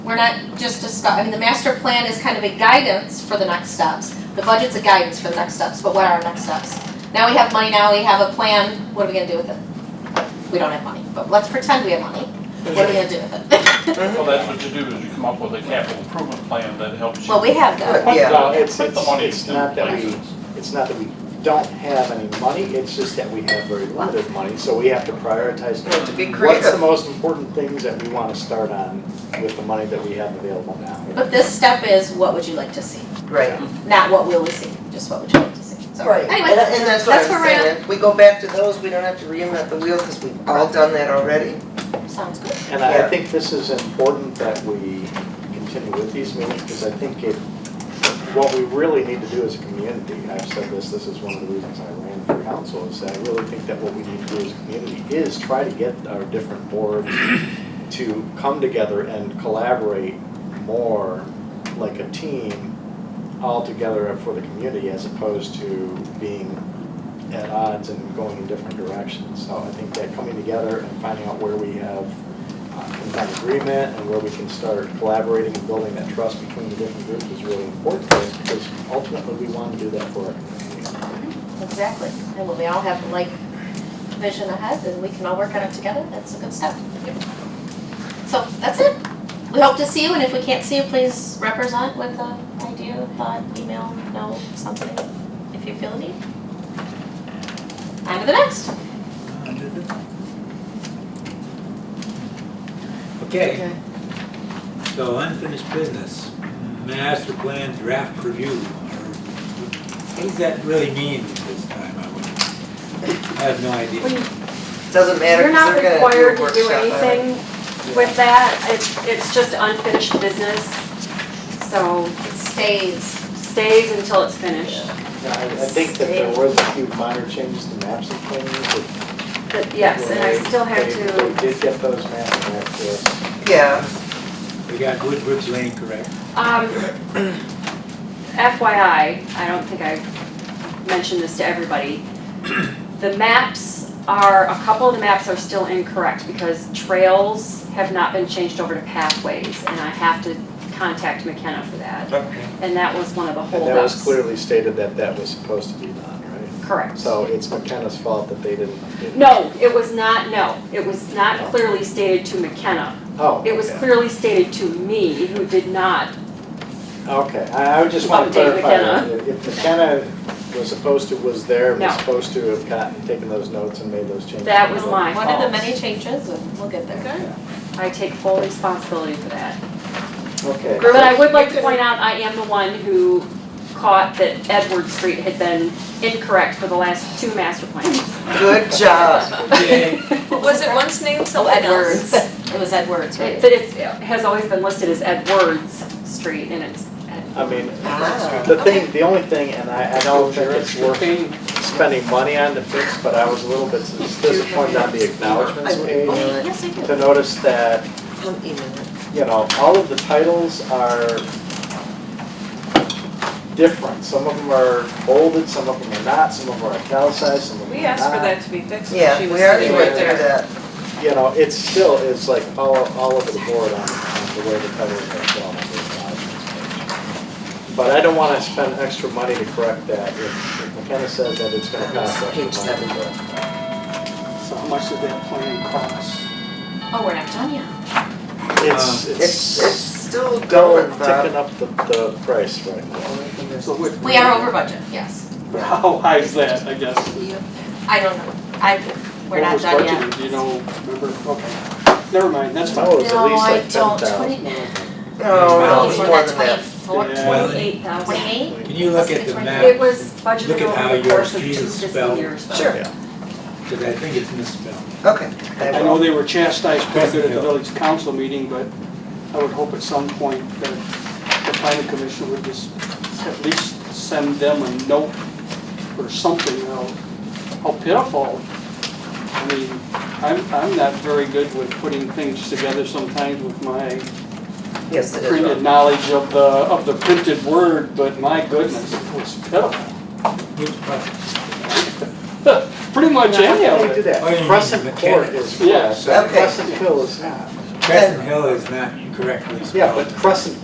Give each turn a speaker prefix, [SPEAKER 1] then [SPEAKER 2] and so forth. [SPEAKER 1] We're not just discuss, I mean, the master plan is kind of a guidance for the next steps. The budget's a guidance for the next steps, but what are our next steps? Now we have money, now we have a plan, what are we gonna do with it? We don't have money, but let's pretend we have money. What are we gonna do with it?
[SPEAKER 2] Well, that's what you do, is you come up with a capital improvement plan that helps you.
[SPEAKER 1] Well, we have that.
[SPEAKER 2] Put
[SPEAKER 3] Yeah,
[SPEAKER 2] the,
[SPEAKER 3] it's-
[SPEAKER 2] put the
[SPEAKER 3] it's-
[SPEAKER 2] money
[SPEAKER 3] it's
[SPEAKER 2] into
[SPEAKER 3] not that we-
[SPEAKER 2] places.
[SPEAKER 3] It's not that we don't have any money, it's just that we have very limited money, so we have to prioritize.
[SPEAKER 4] We have to be
[SPEAKER 3] What's the
[SPEAKER 4] creative.
[SPEAKER 3] most important things that we want to start on with the money that we have available now?
[SPEAKER 1] But this step is, what would you like to see?
[SPEAKER 4] Right,
[SPEAKER 1] Not what will we see, just what would you like to see? So,
[SPEAKER 4] right. And
[SPEAKER 1] anyway,
[SPEAKER 4] and that's what
[SPEAKER 1] that's where
[SPEAKER 4] I'm
[SPEAKER 1] we're at.
[SPEAKER 4] saying. If we go back to those, we don't have to reinvent the wheel because we've all done that already.
[SPEAKER 1] sounds good.
[SPEAKER 3] And I
[SPEAKER 4] Yeah.
[SPEAKER 3] think this is important that we continue with these meetings, because I think it, what we really need to do as a community, I've said this, this is one of the reasons I ran for council, is that I really think that what we need to do as a community is try to get our different boards to come together and collaborate more like a team all together for the community as opposed to being at odds and going in different directions. So I think that coming together and finding out where we have uh, some kind of agreement and where we can start collaborating and building that trust between the different groups is really important to us because ultimately we want to do that for our community.
[SPEAKER 1] Exactly, and when we all have like vision ahead, then we can all work on it together, that's a good step. So that's it, we hope to see you, and if we can't see you, please represent with an idea, thought, email, note, something, if you feel the need. On to the next.
[SPEAKER 5] Okay, so unfinished business, master plan draft review. What does that really mean this time? I wonder? I have no idea.
[SPEAKER 4] Doesn't matter
[SPEAKER 6] You're not
[SPEAKER 4] because they're gonna do a
[SPEAKER 6] required to do
[SPEAKER 4] workshop on it.
[SPEAKER 6] anything with that, it's, it's just unfinished business, so
[SPEAKER 1] It stays.
[SPEAKER 6] stays until it's finished.
[SPEAKER 3] Now, I I think that there was a few minor changes to maps and things that.
[SPEAKER 6] But yes, and I still have
[SPEAKER 3] They-
[SPEAKER 6] to,
[SPEAKER 3] They did get those maps back to us.
[SPEAKER 4] Yeah,
[SPEAKER 5] We got Woodbridge Lane correct.
[SPEAKER 6] um, FYI, I don't think I mentioned this to everybody. The maps are, a couple of the maps are still incorrect because trails have not been changed over to pathways, and I have to contact McKenna for that,
[SPEAKER 4] okay.
[SPEAKER 6] and that was one of the
[SPEAKER 3] And that was
[SPEAKER 6] holdups.
[SPEAKER 3] clearly stated that that was supposed to be done, right?
[SPEAKER 6] Correct.
[SPEAKER 3] So it's McKenna's fault that they didn't. didn't-
[SPEAKER 6] No, it was not, no, it was not clearly stated to McKenna.
[SPEAKER 3] Oh.
[SPEAKER 6] It was
[SPEAKER 3] okay.
[SPEAKER 6] clearly stated to me, who did not.
[SPEAKER 3] Okay, I I would just want to
[SPEAKER 6] Update
[SPEAKER 3] clarify that.
[SPEAKER 6] McKenna.
[SPEAKER 3] If McKenna was supposed to, was there, was
[SPEAKER 6] No.
[SPEAKER 3] supposed to have gotten, taken those notes and made those changes.
[SPEAKER 6] That was my
[SPEAKER 1] One of the
[SPEAKER 6] fault.
[SPEAKER 1] many changes, and we'll get there.
[SPEAKER 6] I take full responsibility for that.
[SPEAKER 3] Okay.
[SPEAKER 6] But I would like to point out, I am the one who caught that Edward Street had been incorrect for the last two master plans.
[SPEAKER 4] Good job.
[SPEAKER 5] Okay,
[SPEAKER 7] Was it once named
[SPEAKER 1] So
[SPEAKER 7] something else?
[SPEAKER 1] Edwards, it was Edwards, right?
[SPEAKER 6] It- But it's- it has always been listed as Edwards Street, and it's
[SPEAKER 3] I mean,
[SPEAKER 4] Ah.
[SPEAKER 3] the thing, the only thing, and I, I don't think it's worth spending money on to fix, but I was a little bit disappointed on the acknowledgements page
[SPEAKER 1] Okay, Oh, yes, I do.
[SPEAKER 3] to notice that
[SPEAKER 4] I'll email it.
[SPEAKER 3] you know, all of the titles are different. Some of them are bolded, some of them are not, some of them are italicized, some of them are not.
[SPEAKER 7] We asked for
[SPEAKER 3] uh,
[SPEAKER 7] that to be fixed.
[SPEAKER 4] Yeah,
[SPEAKER 7] She
[SPEAKER 4] we
[SPEAKER 7] was
[SPEAKER 4] already
[SPEAKER 7] sitting
[SPEAKER 4] went
[SPEAKER 7] right
[SPEAKER 4] through
[SPEAKER 7] there.
[SPEAKER 4] that.
[SPEAKER 3] You know, it's still, it's like all, all over the board on on the way the titles are drawn on the acknowledgements page. But I don't want to spend extra money to correct that. If if McKenna says that it's going to cost extra
[SPEAKER 4] Page seven.
[SPEAKER 3] money. but-
[SPEAKER 8] So how much did that plan cost?
[SPEAKER 1] Oh, we're not done yet.
[SPEAKER 3] It's,
[SPEAKER 4] It's, it's
[SPEAKER 3] it's
[SPEAKER 4] still
[SPEAKER 3] still
[SPEAKER 4] going,
[SPEAKER 3] ticking
[SPEAKER 4] Bob.
[SPEAKER 3] up the, the price right now.
[SPEAKER 8] So what-
[SPEAKER 1] We are over budget, yes.
[SPEAKER 8] How high is that, Oh, I guess?
[SPEAKER 1] I don't know, I, we're not
[SPEAKER 8] What
[SPEAKER 1] done
[SPEAKER 8] was
[SPEAKER 1] yet.
[SPEAKER 8] budgeted, do you know, remember, okay, never mind, that's
[SPEAKER 3] No,
[SPEAKER 8] fine.
[SPEAKER 3] it's at least like ten
[SPEAKER 1] No, I
[SPEAKER 3] thousand.
[SPEAKER 1] don't, twenty,
[SPEAKER 4] No,
[SPEAKER 1] no,
[SPEAKER 4] it
[SPEAKER 1] it's more
[SPEAKER 4] was Oh, more
[SPEAKER 1] than
[SPEAKER 4] than that.
[SPEAKER 1] twenty-four,
[SPEAKER 5] Yeah.
[SPEAKER 6] twenty-eight thousand.
[SPEAKER 1] twenty-eight?
[SPEAKER 5] Can you look at the
[SPEAKER 6] It
[SPEAKER 5] map?
[SPEAKER 6] was budgeted
[SPEAKER 5] Look at how
[SPEAKER 6] over the
[SPEAKER 5] your
[SPEAKER 6] course of two
[SPEAKER 5] street is
[SPEAKER 6] fiscal
[SPEAKER 5] spelled.
[SPEAKER 6] years, though.
[SPEAKER 4] Sure.
[SPEAKER 5] Because I think it's misspelled.
[SPEAKER 4] Okay.
[SPEAKER 8] I know they were chastised back there at the village council meeting, but I would hope at some point that the planning commission would just at least send them a note or something, you know, how pitiful. I mean, I'm, I'm not very good with putting things together sometimes with my
[SPEAKER 4] Yes, it is.
[SPEAKER 8] printed knowledge of the, of the printed word, but my goodness, it was pitiful.
[SPEAKER 5] Which part?
[SPEAKER 8] Pretty much any
[SPEAKER 3] Yeah,
[SPEAKER 8] of
[SPEAKER 3] they do
[SPEAKER 8] it.
[SPEAKER 3] that.
[SPEAKER 5] Oh, you mean
[SPEAKER 3] Crescent Court
[SPEAKER 5] mechanics.
[SPEAKER 3] is.
[SPEAKER 8] Yes.
[SPEAKER 3] Yeah,
[SPEAKER 4] Okay.
[SPEAKER 3] Crescent Hill is not.
[SPEAKER 5] Crescent Hill is not correctly spelled.
[SPEAKER 3] Yeah, but Crescent